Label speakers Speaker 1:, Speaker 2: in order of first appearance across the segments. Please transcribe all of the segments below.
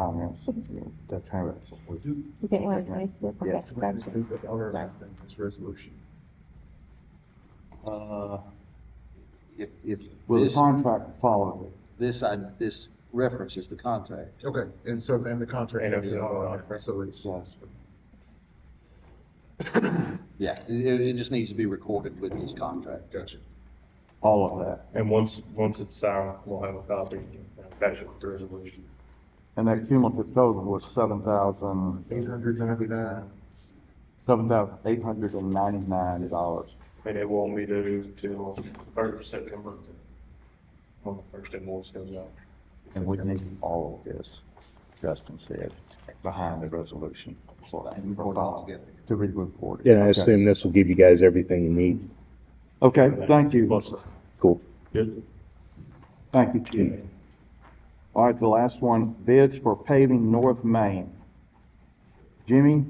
Speaker 1: comments. That's how it was.
Speaker 2: You didn't want to raise it? Okay,
Speaker 1: Yes.
Speaker 2: gotcha.
Speaker 3: the other amendment, this resolution.
Speaker 4: Uh, If, if
Speaker 1: Will the
Speaker 4: this,
Speaker 1: contract follow
Speaker 4: this, I, this reference is the contract.
Speaker 3: Okay, and so then the contract.
Speaker 5: And it's
Speaker 3: is not
Speaker 5: another
Speaker 3: on there,
Speaker 5: contract.
Speaker 3: So
Speaker 1: it?
Speaker 3: it's,
Speaker 1: Yes.
Speaker 4: Yeah, it, it just needs to be recorded with this contract.
Speaker 3: gotcha.
Speaker 1: All of that.
Speaker 5: And once, once it's signed, we'll have a copy, attach it with the resolution.
Speaker 1: And that cumulative total was seven thousand,
Speaker 3: Eight hundred ninety-nine,
Speaker 1: seven thousand eight hundred and ninety-nine dollars.
Speaker 5: And it won't be due till third of September, when the first invoice goes out.
Speaker 1: And we need all of this, Justin said, behind the resolution. for-
Speaker 4: And Record all together.
Speaker 1: To be reported.
Speaker 6: Yeah, I
Speaker 1: Okay.
Speaker 6: assume this will give you guys everything you need.
Speaker 1: Okay, thank you.
Speaker 5: Plus,
Speaker 6: Cool.
Speaker 5: good,
Speaker 1: Thank you, Chief. All right, the last one, bids for paving North Main. Jimmy?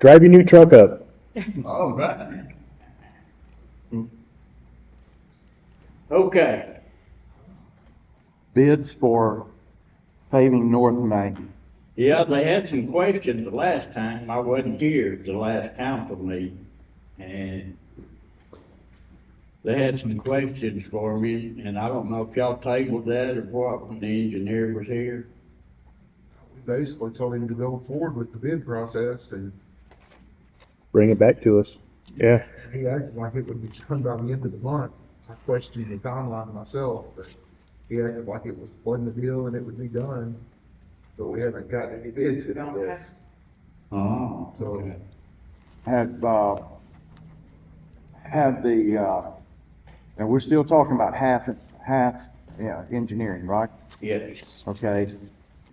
Speaker 6: Drive your new truck up.
Speaker 7: All right. Okay,
Speaker 1: bids for paving North Main.
Speaker 7: yeah, they had some questions the last time. I wasn't here at the last council meeting. And they had some questions for me, and I don't know if y'all tabled that or what when the engineer was here.
Speaker 3: basically told him to go forward with the bid process and
Speaker 6: Bring it back to us. Yeah.
Speaker 3: he acted like it would be done by the end of the month. I questioned the timeline myself, but he acted like it was flooding the deal and it would be done. But we haven't gotten any bids in this.
Speaker 6: Uh-huh.
Speaker 7: Oh,
Speaker 3: okay.
Speaker 1: Had, uh, had the, uh, and we're still talking about half, half, yeah, engineering, right?
Speaker 7: Yes,
Speaker 1: Okay,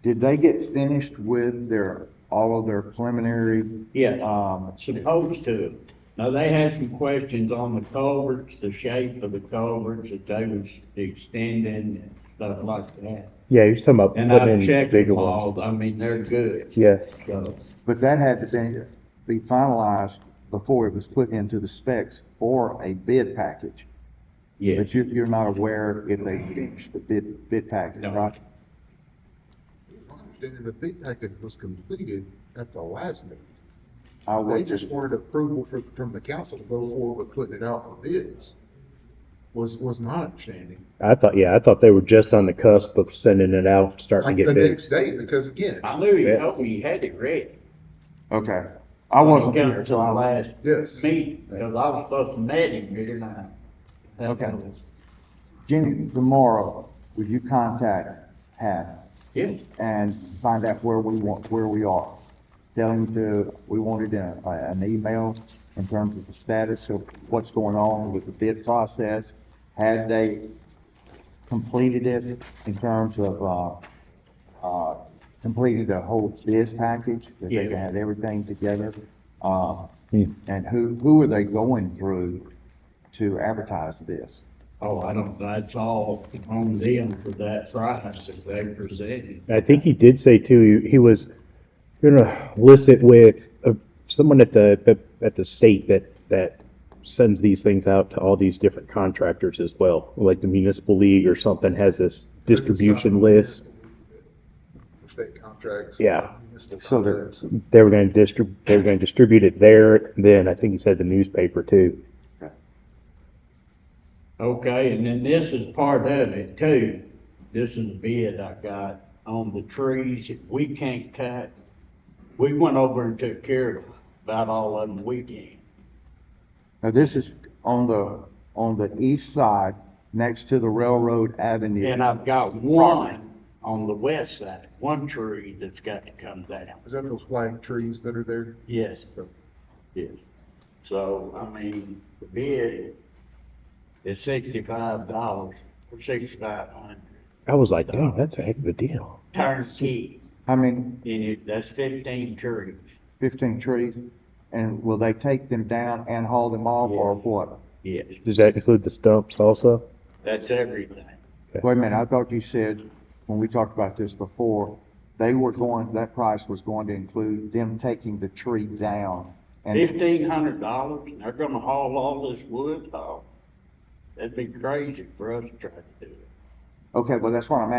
Speaker 1: did they get finished with their, all of their preliminary,
Speaker 7: yeah,
Speaker 1: um,
Speaker 7: supposed to. Now, they had some questions on the culverts, the shape of the culverts that they was extending and stuff like that.
Speaker 6: Yeah, you're talking about
Speaker 7: And
Speaker 6: putting
Speaker 7: I've
Speaker 6: in
Speaker 7: checked them
Speaker 6: bigger ones.
Speaker 7: all, I mean, they're good,
Speaker 6: Yeah.
Speaker 7: so,
Speaker 1: but that had to be, be finalized before it was put into the specs for a bid package.
Speaker 7: yeah.
Speaker 1: But you, you're not aware if they finished the bid, bid package,
Speaker 7: No.
Speaker 1: right?
Speaker 3: My understanding, the bid package was completed at the last meeting.
Speaker 1: I
Speaker 3: They
Speaker 1: would
Speaker 3: just wanted approval from, from the council to go forward with putting it out for bids. Was, was my understanding.
Speaker 6: I thought, yeah, I thought they were just on the cusp of sending it out, starting
Speaker 3: Like
Speaker 6: to
Speaker 3: the
Speaker 6: get big.
Speaker 3: next day, because again,
Speaker 7: I knew you
Speaker 6: Yeah.
Speaker 7: told me you had it ready.
Speaker 1: Okay, I wasn't here,
Speaker 7: Until
Speaker 1: so
Speaker 7: the
Speaker 1: I,
Speaker 7: last
Speaker 3: yes.
Speaker 7: meeting, because I was supposed to meet him here now.
Speaker 1: Okay. Jenny, tomorrow, would you contact Hath
Speaker 7: Yes,
Speaker 1: and find out where we want, where we are? Tell him to, we wanted a, a- an email in terms of the status of what's going on with the bid process. Had they completed it in terms of, uh, uh, completed the whole bid package? That they
Speaker 7: Yeah.
Speaker 1: had everything together? Uh,
Speaker 6: Hmm.
Speaker 1: and who, who are they going through to advertise this?
Speaker 7: oh, I don't, that's all on them for that price that they presented.
Speaker 6: I think he did say too, he was gonna list it with uh, someone at the, at the state that, that sends these things out to all these different contractors as well. Like the municipal league or something has this distribution list.
Speaker 3: State contracts.
Speaker 6: Yeah.
Speaker 3: municipal
Speaker 1: So they're-
Speaker 3: contracts.
Speaker 6: They were gonna distrib, they were gonna distribute it there, then I think he said the newspaper too.
Speaker 7: Okay, and then this is part of it too. This is a bid I got on the trees that we can't cut. We went over and took care of about all of them we can.
Speaker 1: Now, this is on the, on the east side, next to the railroad avenue.
Speaker 7: And I've got one on the west side, one tree that's got to come down.
Speaker 3: Is that those flag trees that are there?
Speaker 7: Yes, yes. So, I mean, the bid is sixty-five dollars for sixty-five hundred.
Speaker 6: I was like, dang, that's a heck of a deal.
Speaker 7: Turnkey,
Speaker 1: I mean,
Speaker 7: and it, that's fifteen trees.
Speaker 1: fifteen trees, and will they take them down and haul them off, or what?
Speaker 7: Yes,
Speaker 6: Does that include the stumps also?
Speaker 7: that's everything.
Speaker 1: Wait a minute, I thought you said, when we talked about this before, they were going, that price was going to include them taking the tree down. And
Speaker 7: Fifteen hundred dollars, and they're gonna haul all this wood off. That'd be crazy for us to try to do it.
Speaker 1: Okay, well, that's what I'm